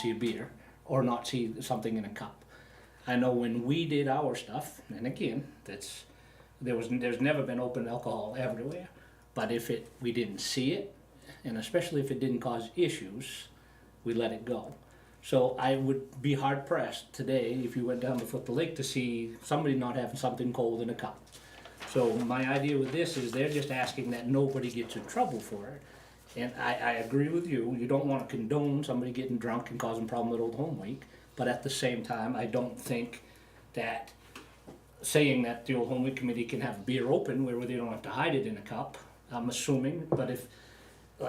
see a beer or not see something in a cup. I know when we did our stuff, and again, that's there was there's never been open alcohol everywhere, but if it we didn't see it, and especially if it didn't cause issues, we let it go. So I would be hard pressed today if you went down to Foot the Lake to see somebody not having something cold in a cup. So my idea with this is they're just asking that nobody gets in trouble for it. And I, I agree with you, you don't wanna condone somebody getting drunk and causing problem at Old Home Week. But at the same time, I don't think that saying that the Old Home Week Committee can have beer open where they don't have to hide it in a cup, I'm assuming, but if,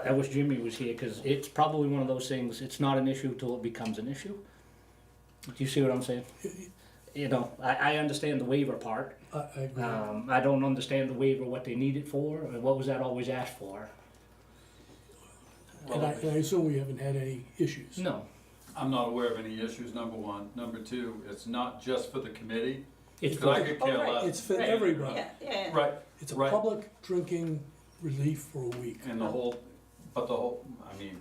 I wish Jimmy was here, cause it's probably one of those things, it's not an issue till it becomes an issue. Do you see what I'm saying? You know, I, I understand the waiver part, I, I agree. um, I don't understand the waiver, what they need it for, and what was that always asked for? and, I, and I assume we haven't had any issues. No, I'm not aware of any issues, number one. Number two, it's not just for the committee. it's, 'cause I for- could Oh, care right, less. It's for Right. everybody. Yeah, yeah. Right, It's a Right. public drinking relief for a week. and the whole, but the whole, I mean,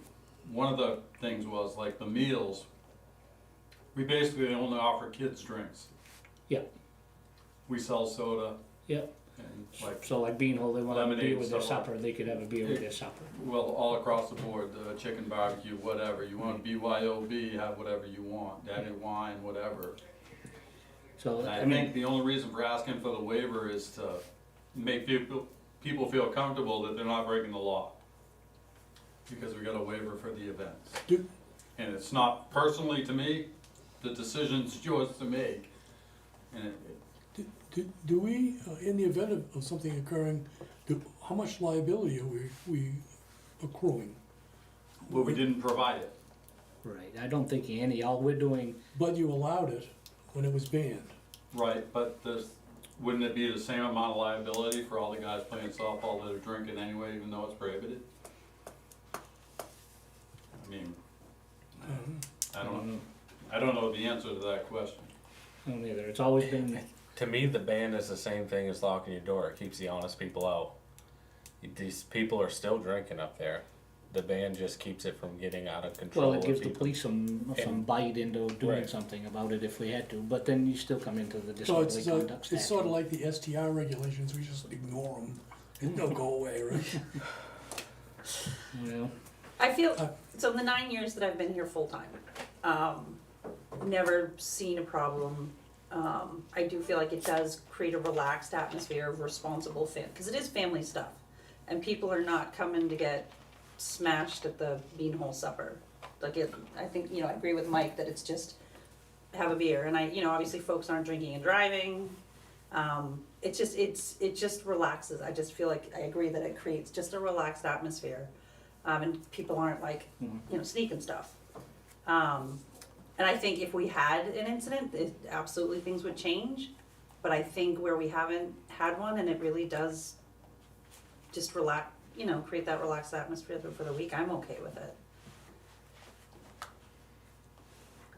one of the things was like the meals. We basically only offer kids drinks. Yeah. We sell soda yeah, and like, so like Bean Hole, they wanna have a beer Lemonade, with their so on. supper, they could have a beer with their supper. well, all across the board, the chicken barbecue, whatever. You want BYOB, have whatever you want, daddy wine, whatever. So, And I I think mean, the only reason for asking for the waiver is to make people, people feel comfortable that they're not breaking the law. Because we got a waiver for the events. Do, And it's not personally to me, the decision's yours to make. And it, do, do, do we, uh, in the event of, of something occurring, do, how much liability are we, we accruing? well, we didn't provide it. right, I don't think any, all we're doing, But you allowed it when it was banned. Right, but this, wouldn't it be the same amount of liability for all the guys playing softball that are drinking anyway, even though it's prohibited? I mean, I don't, I don't know the answer to that question. I don't either, it's always been, To me, the ban is the same thing as locking your door. It keeps the honest people out. These people are still drinking up there. The ban just keeps it from getting out of control. well, it and gives the people- police some, some bite into doing Right. something about it if we had to, but then you still come into the disorderly So it's, uh, conduct statute. it's sort of like the STR regulations, we just ignore them and they'll go away, right? You know, I Uh, feel, so in the nine years that I've been here full-time, um, never seen a problem. Um, I do feel like it does create a relaxed atmosphere of responsible fam, because it is family stuff. And people are not coming to get smashed at the beanhole supper. Like it, I think, you know, I agree with Mike that it's just have a beer, and I, you know, obviously folks aren't drinking and driving. Um, it just, it's, it just relaxes, I just feel like, I agree that it creates just a relaxed atmosphere. Um, and people aren't like, you know, sneaking stuff. Um, and I think if we had an incident, it, absolutely things would change, but I think where we haven't had one, and it really does just relax, you know, create that relaxed atmosphere for the week, I'm okay with it.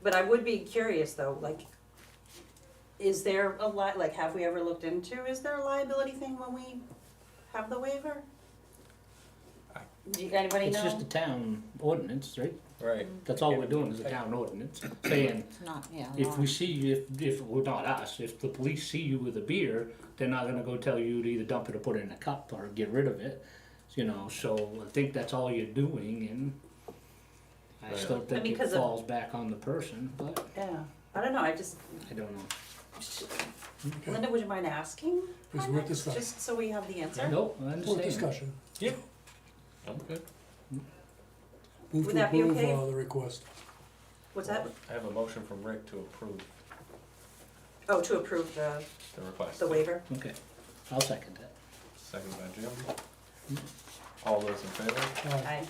But I would be curious though, like, is there a li- like, have we ever looked into, is there a liability thing when we have the waiver? Do you, anybody it's know? just a town ordinance, right? Right. That's all we're doing is a town ordinance, saying, Not, yeah. If we see you, if, if, well, not us, if the police see you with a beer, they're not gonna go tell you to either dump it or put it in a cup or get rid of it, you know, so I think that's all you're doing and I Right. still think it because of- falls back on the person, but Yeah, I don't know, I just, I don't know. Okay, Linda, would you mind asking? It's worth discussing. Just so we have the answer. Nope, I For understand. discussion, I'm good. move Would to that be approve okay? uh, the request. What's that? I have a motion from Rick to approve Oh, to approve the, the request. the waiver. Okay, I'll second that. Second by Jim. All those in favor? Uh, I,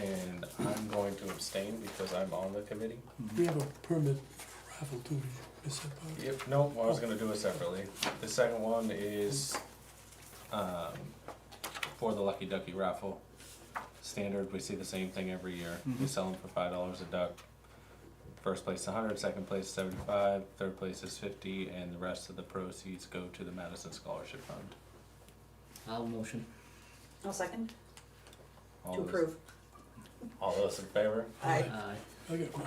And I'm going to abstain because I'm on the committee. We have a permit raffle too, did you miss that part? Yep, nope, I was gonna do it separately. The second one is, um, for the Lucky Ducky raffle. Standard, we see the same thing every year. We sell them for five dollars a duck. First place a hundred, second place seventy-five, third place is fifty, and the rest of the proceeds go to the Madison Scholarship Fund. I'll motion. I'll second, All to those- approve. All those in favor? I, Aye. I got,